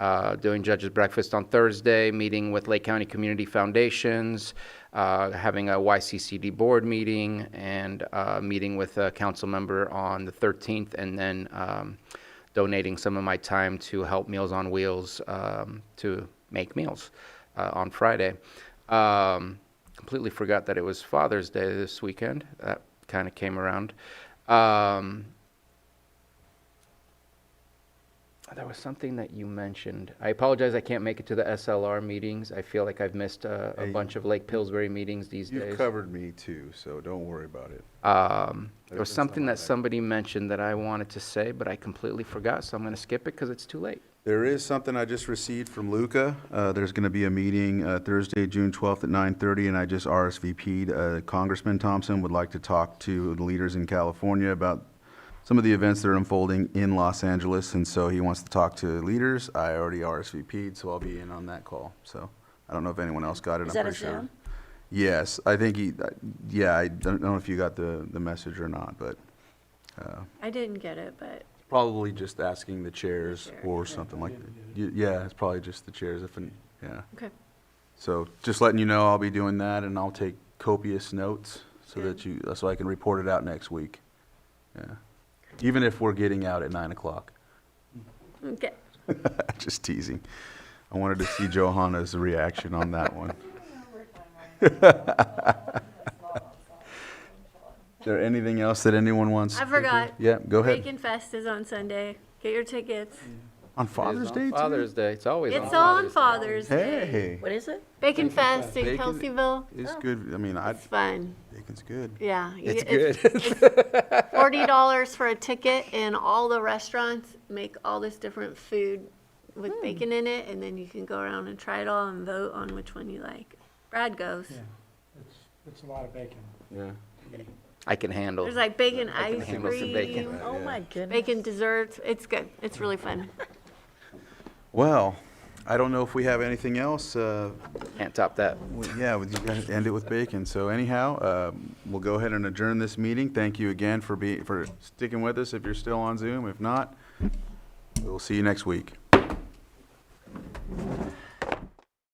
uh, doing judges breakfast on Thursday, meeting with Lake County Community Foundations, uh, having a YCCD board meeting, and uh, meeting with a council member on the 13th, and then um, donating some of my time to help Meals on Wheels um, to make meals uh, on Friday. Um, completely forgot that it was Father's Day this weekend. That kind of came around. Um, there was something that you mentioned. I apologize. I can't make it to the SLR meetings. I feel like I've missed a, a Hey, bunch of Lake Pillsbury meetings these You've days. covered me too, so don't worry about it. Um, there There's was been something some that of that. somebody mentioned that I wanted to say, but I completely forgot, so I'm going to skip it because it's too late. There is something I just received from Luca. Uh, There's going to be a meeting uh, Thursday, June 12th at 9:30, and I just RSVP'd. Uh, Congressman Thompson would like to talk to the leaders in California about some of the events that are unfolding in Los Angeles, and so he wants to talk to leaders. I already RSVP'd, so I'll be in on that call. So I don't know if anyone else got it. Is I'm that a pretty sure. Zoom? Yes, I think he, uh, yeah, I don't know if you got the the message or not, but uh, I didn't get it, but Probably just asking the chairs chair, or yeah. something like, that. yeah, it's probably just the chairs if, an- yeah. okay. So just letting you know, I'll be doing that and I'll take copious notes so that you, uh, so I can report it out next week. Yeah. Even if we're getting out at nine o'clock. Okay. Just teasing. I wanted to see Johanna's reaction on that one. Is there anything else that anyone wants? I forgot. Yeah, go ahead. Bacon Fest is on Sunday. Get your tickets. On It is Father's on Day too? Father's Day. It's always on It's Father's on Day. Father's Day. Hey, What is it? Bacon Fest in Bacon- Kelseyville. it's good. I mean, I, It's fun. bacon's good. Yeah. you It's get- it's Forty dollars for a ticket and all the restaurants make all this different food with bacon in it and then you can go around and try it all and vote on which one you like. Brad goes. Yeah, it's, it's a lot of bacon. Yeah. I can handle. There's like bacon ice handle some bacon. cream, Oh, my goodness. bacon desserts. It's good. It's really fun. Well, I don't know if we have anything else. Uh, Can't top that. we- yeah, we just gotta end it with bacon. So anyhow, um, we'll go ahead and adjourn this meeting. Thank you again for being, for sticking with us if you're still on Zoom. If not, we'll see you next week.